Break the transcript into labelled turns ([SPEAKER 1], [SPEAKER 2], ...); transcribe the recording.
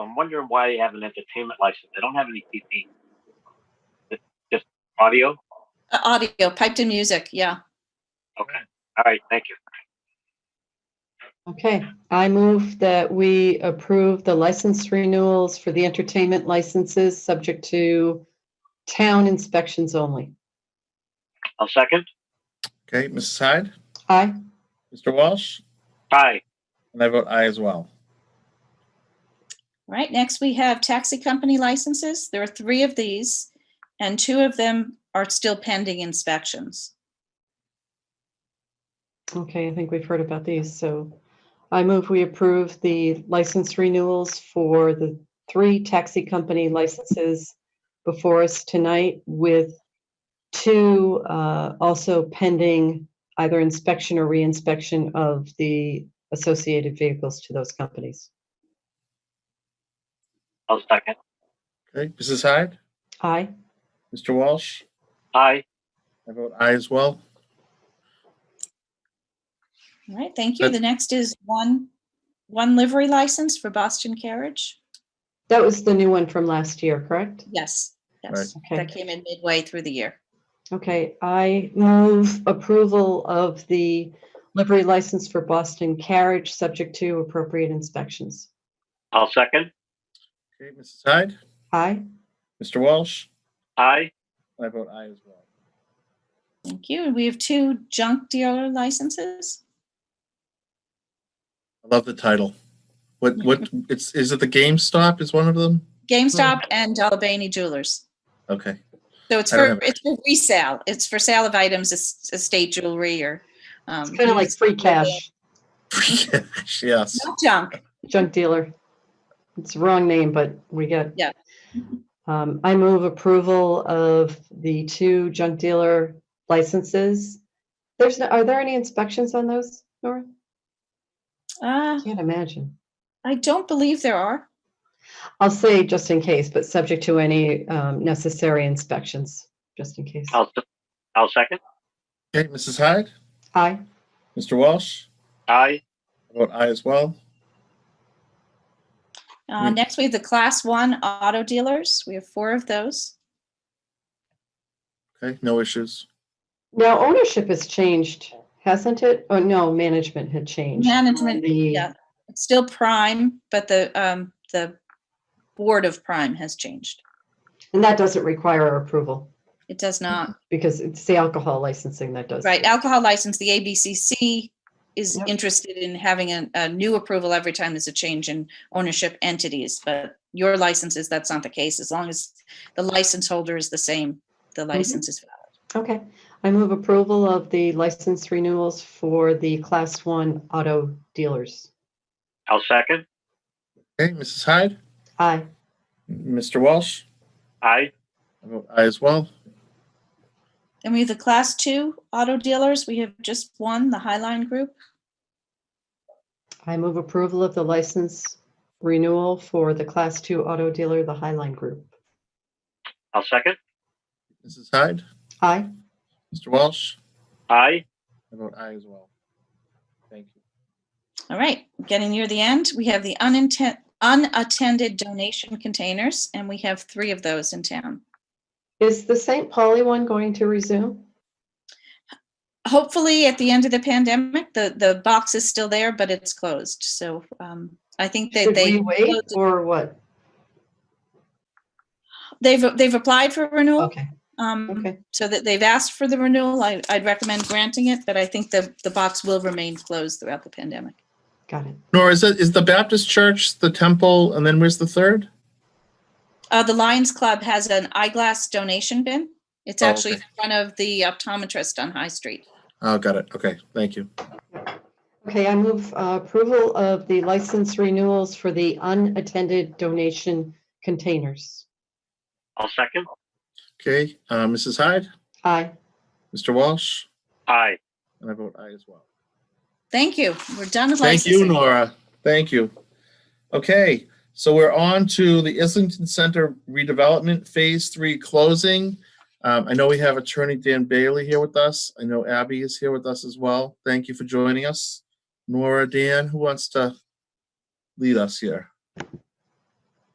[SPEAKER 1] I'm wondering why they have an entertainment license. They don't have any TV. It's just audio?
[SPEAKER 2] Uh, Audio, piped in music, yeah.
[SPEAKER 1] Okay. All right, thank you.
[SPEAKER 3] Okay, I move that we approve the license renewals for the entertainment licenses, subject to town inspections only.
[SPEAKER 1] I'll second.
[SPEAKER 4] Okay, Mrs. Hyde,
[SPEAKER 3] Aye,
[SPEAKER 4] Mr. Walsh,
[SPEAKER 1] Aye.
[SPEAKER 4] and I vote aye as well.
[SPEAKER 2] Right, next we have taxi company licenses. There are three of these, and two of them are still pending inspections.
[SPEAKER 3] okay, I think we've heard about these, so I move we approve the license renewals for the three taxi company licenses before us tonight with two uh, also pending either inspection or reinspection of the associated vehicles to those companies.
[SPEAKER 1] I'll second.
[SPEAKER 4] Okay, Mrs. Hyde,
[SPEAKER 3] Aye.
[SPEAKER 4] Mr. Walsh,
[SPEAKER 1] Aye.
[SPEAKER 4] I vote aye as well.
[SPEAKER 2] All right, thank you. The next is one, one livery license for Boston Carriage.
[SPEAKER 3] That was the new one from last year, correct?
[SPEAKER 2] Yes, yes,
[SPEAKER 3] Right. Okay.
[SPEAKER 2] that came in midway through the year.
[SPEAKER 3] Okay, I move approval of the livery license for Boston Carriage, subject to appropriate inspections.
[SPEAKER 1] I'll second.
[SPEAKER 4] Okay, Mrs. Hyde,
[SPEAKER 3] Aye,
[SPEAKER 4] Mr. Walsh,
[SPEAKER 1] Aye.
[SPEAKER 4] and I vote aye as well.
[SPEAKER 2] Thank you. And we have two junk dealer licenses.
[SPEAKER 4] I love the title. What, what, it's, is it the GameStop is one of them?
[SPEAKER 2] GameStop and Albany Jewelers.
[SPEAKER 4] Okay,
[SPEAKER 2] So it's
[SPEAKER 4] Hmm. I
[SPEAKER 2] for,
[SPEAKER 4] don't have-
[SPEAKER 2] it's for resale. It's for sale of items, es- estate jewelry or. um,
[SPEAKER 3] it's kind of like free cash,
[SPEAKER 4] yes.
[SPEAKER 2] Not junk.
[SPEAKER 3] junk dealer. It's the wrong name, but we get.
[SPEAKER 2] Yeah.
[SPEAKER 3] Um, I move approval of the two junk dealer licenses. There's, no- are there any inspections on those, Nora?
[SPEAKER 2] Uh,
[SPEAKER 3] Can't imagine.
[SPEAKER 2] I don't believe there are.
[SPEAKER 3] I'll say just in case, but subject to any um, necessary inspections, just in case.
[SPEAKER 1] I'll, se- I'll second.
[SPEAKER 4] Okay, Mrs. Hyde,
[SPEAKER 3] Aye.
[SPEAKER 4] Mr. Walsh,
[SPEAKER 1] Aye.
[SPEAKER 4] I vote aye as well.
[SPEAKER 2] Uh,
[SPEAKER 4] Mm.
[SPEAKER 2] next, we have the class one auto dealers. We have four of those.
[SPEAKER 4] Okay, no issues.
[SPEAKER 3] Now ownership has changed, hasn't it? Oh, no, management had changed.
[SPEAKER 2] Management,
[SPEAKER 3] The-
[SPEAKER 2] yeah, it's still prime, but the, um, the board of prime has changed.
[SPEAKER 3] And that doesn't require our approval
[SPEAKER 2] It does not,
[SPEAKER 3] because it's the alcohol licensing that does.
[SPEAKER 2] right?
[SPEAKER 3] it.
[SPEAKER 2] Alcohol license, the ABCC is
[SPEAKER 3] Yep.
[SPEAKER 2] interested in having a, a new approval every time there's a change in ownership entities, but your licenses, that's not the case. As long as the license holder is the same, the license is valid.
[SPEAKER 3] Okay. I move approval of the license renewals for the class one auto dealers.
[SPEAKER 1] I'll second.
[SPEAKER 4] Okay, Mrs. Hyde,
[SPEAKER 3] Aye.
[SPEAKER 4] Mr. Walsh,
[SPEAKER 1] Aye.
[SPEAKER 4] I vote aye as well.
[SPEAKER 2] Then we have the class two auto dealers. We have just one, the Highline Group.
[SPEAKER 3] I move approval of the license renewal for the class two auto dealer, the Highline Group.
[SPEAKER 1] I'll second.
[SPEAKER 4] Mrs. Hyde,
[SPEAKER 3] Aye.
[SPEAKER 4] Mr. Walsh,
[SPEAKER 1] Aye.
[SPEAKER 4] I vote aye as well. Thank you.
[SPEAKER 2] All right, getting near the end, we have the uninten- unattended donation containers, and we have three of those in town.
[SPEAKER 3] Is the St. Pauli one going to resume?
[SPEAKER 2] Hopefully, at the end of the pandemic, the, the box is still there, but it's closed. So um, I think that
[SPEAKER 3] Should
[SPEAKER 2] they,
[SPEAKER 3] we wait
[SPEAKER 2] closed it.
[SPEAKER 3] or what?
[SPEAKER 2] they've, they've applied for renewal.
[SPEAKER 3] Okay,
[SPEAKER 2] um,
[SPEAKER 3] okay.
[SPEAKER 2] So that they've asked for the renewal. I, I'd recommend granting it, but I think the, the box will remain closed throughout the pandemic.
[SPEAKER 3] Got it.
[SPEAKER 4] Nora, is that is the Baptist Church, the temple, and then where's the third?
[SPEAKER 2] Uh, the Lions Club has an eyeglass donation bin. It's
[SPEAKER 4] Oh,
[SPEAKER 2] actually in
[SPEAKER 4] okay.
[SPEAKER 2] front of the optometrist on High Street.
[SPEAKER 4] Oh, got it. Okay, thank you.
[SPEAKER 3] Okay, I move uh, approval of the license renewals for the unattended donation containers.
[SPEAKER 1] I'll second.
[SPEAKER 4] Okay, uh, Mrs. Hyde,
[SPEAKER 3] Aye.
[SPEAKER 4] Mr. Walsh,
[SPEAKER 1] Aye.
[SPEAKER 4] and I vote aye as well.
[SPEAKER 2] Thank you. We're done with
[SPEAKER 4] Thank you,
[SPEAKER 2] licensing.
[SPEAKER 4] Nora. Thank you. Okay, so we're on to the Islington Center redevelopment Phase Three closing. Um, I know we have Attorney Dan Bailey here with us. I know Abby is here with us as well. Thank you for joining us. Nora, Dan, who wants to lead us here?